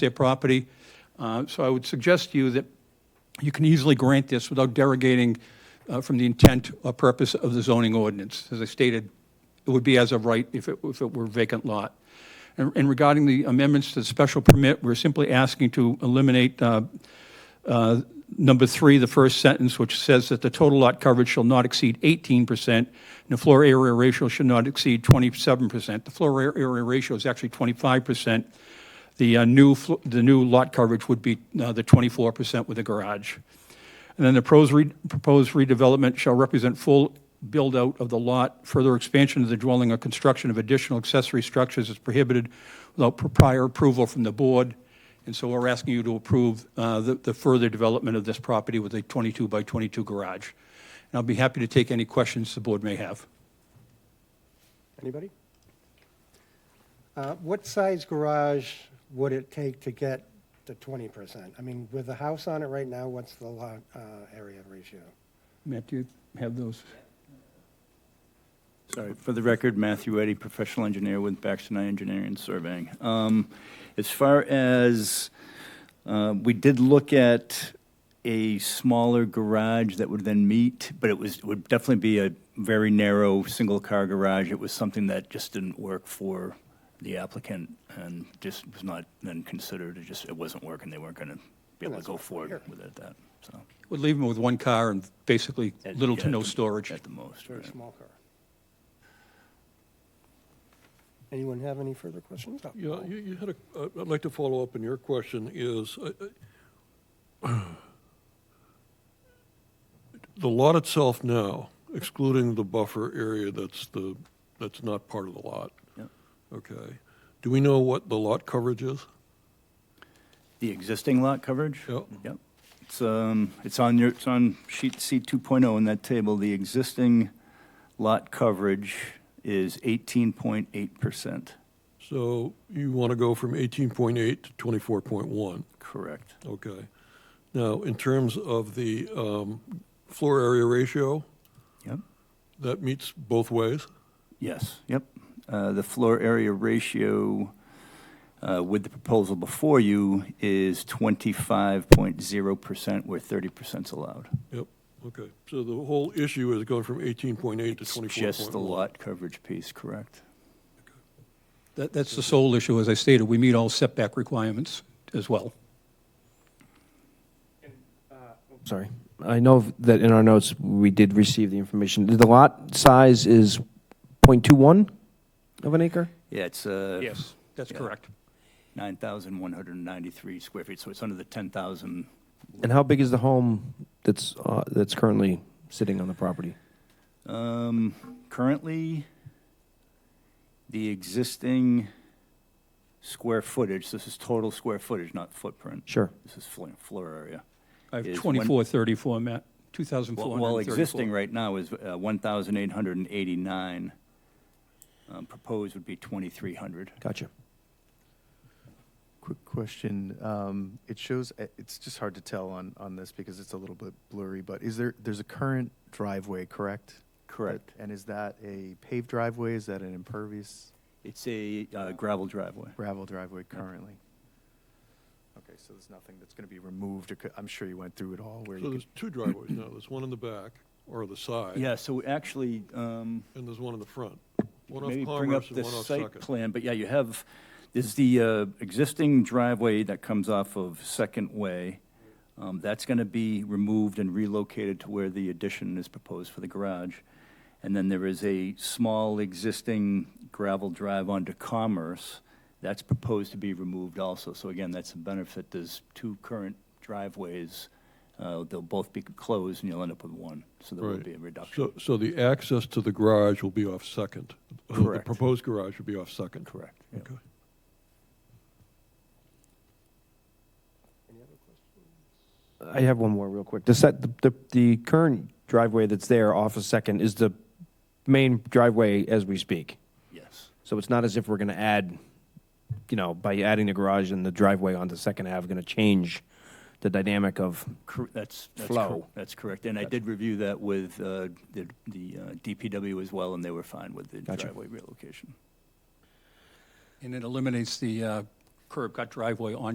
their property. Uh, So I would suggest to you that you can easily grant this without derogating uh, from the intent or purpose of the zoning ordinance. As I stated, it would be as of right if it, if it were vacant lot. And and regarding the amendments to the special permit, we're simply asking to eliminate uh, uh, number three, the first sentence, which says that the total lot coverage shall not exceed 18%, and the floor area ratio should not exceed 27%. The floor area ratio is actually 25%. The uh, new, fl- the new lot coverage would be uh, the 24% with the garage. And then the pros- re- proposed redevelopment shall represent full build-out of the lot. Further expansion of the dwelling or construction of additional accessory structures is prohibited without prior approval from the board. And so we're asking you to approve uh, the the further development of this property with a 22 by 22 garage. And I'll be happy to take any questions the board may have. Anybody? Uh, What size garage would it take to get to 20%? I mean, with the house on it right now, what's the lot uh, area ratio? Matt, do you have those? Sorry, for the record, Matthew Eddy, professional engineer with Baxter Knight Engineering and Surveying. Um, As far as, uh, we did look at a smaller garage that would then meet, but it was, it would definitely be a very narrow, single-car garage. It was something that just didn't work for the applicant and just was not then considered, it just, it wasn't working, they weren't gonna be able to go forward with it at that, so. We'll leave them with one car and basically little to Yeah, no at the- storage. At the most, Very right. small car. Anyone have any further questions? Oh, Yeah, Paul. you, you had a, uh, I'd like to follow up on your question is, uh, uh, the lot itself now, excluding the buffer area that's the, that's not part of the lot, Yep. okay? Do we know what the lot coverage is? The existing lot coverage? Yep. Yep. It's, um, it's on your, it's on sheet C 2.0 in that table. The existing lot coverage is 18.8%. So you want to go from 18.8 to 24.1, Correct. okay? Now, in terms of the um, floor area ratio, Yep. that meets both ways? Yes, yep. Uh, The floor area ratio uh, with the proposal before you is 25.0%, where 30% is allowed. Yep, okay. So the whole issue is going from 18.8 to It's 24.1. Just the lot coverage piece, correct? That- That's the sole issue, as I stated. We meet all setback requirements as well. Sorry. I know that in our notes, we did receive the information. The lot size is .21 of an acre? Yeah, it's, uh, Yes, that's Yeah. correct. 9,193 square feet, so it's under the 10,000. And how big is the home that's, uh, that's currently sitting on the property? Um, Currently, the existing square footage, this is total square footage, not footprint. Sure. This is flo- floor area. I have Is one- 2434, Matt, Well, 2,434. well, existing right now is uh, 1,889. Um, Proposed would be 2,300. Gotcha. Quick question. Um, It shows, it's just hard to tell on, on this because it's a little bit blurry, but is there, there's a current driveway, correct? Correct. And is that a paved driveway? Is that an impervious It's a uh, gravel driveway. gravel driveway currently? Okay, so there's nothing that's going to be removed or, co- I'm sure you went through it all where So you there's two driveways now. There's one in the back or the side. Yeah, so actually, um, And there's one in the front. One Maybe off bring up Commerce the and one off site Second. plan, but yeah, you have, there's the uh, existing driveway that comes off of Second Way. Um, That's going to be removed and relocated to where the addition is proposed for the garage. And then there is a small existing gravel drive onto Commerce that's proposed to be removed also. So again, that's a benefit, there's two current driveways, Uh, they'll both be closed and you'll end up with one, so there will Right. be a reduction. So, so the access to the garage will be off Second. The- Correct. The proposed garage will be off Second. Correct. Yep. Okay. I have one more real quick. The set, the- the, the current driveway that's there off of Second is the main driveway as we speak. Yes. So it's not as if we're going to add, you know, by adding the garage and the driveway onto Second Ave, going to change the dynamic of Cor- That's, that's, cor- Flow. that's correct. And I did review that with uh, the the, uh, DPW as well, and they were fine with the Gotcha. driveway relocation. And it eliminates the uh, curb cut driveway on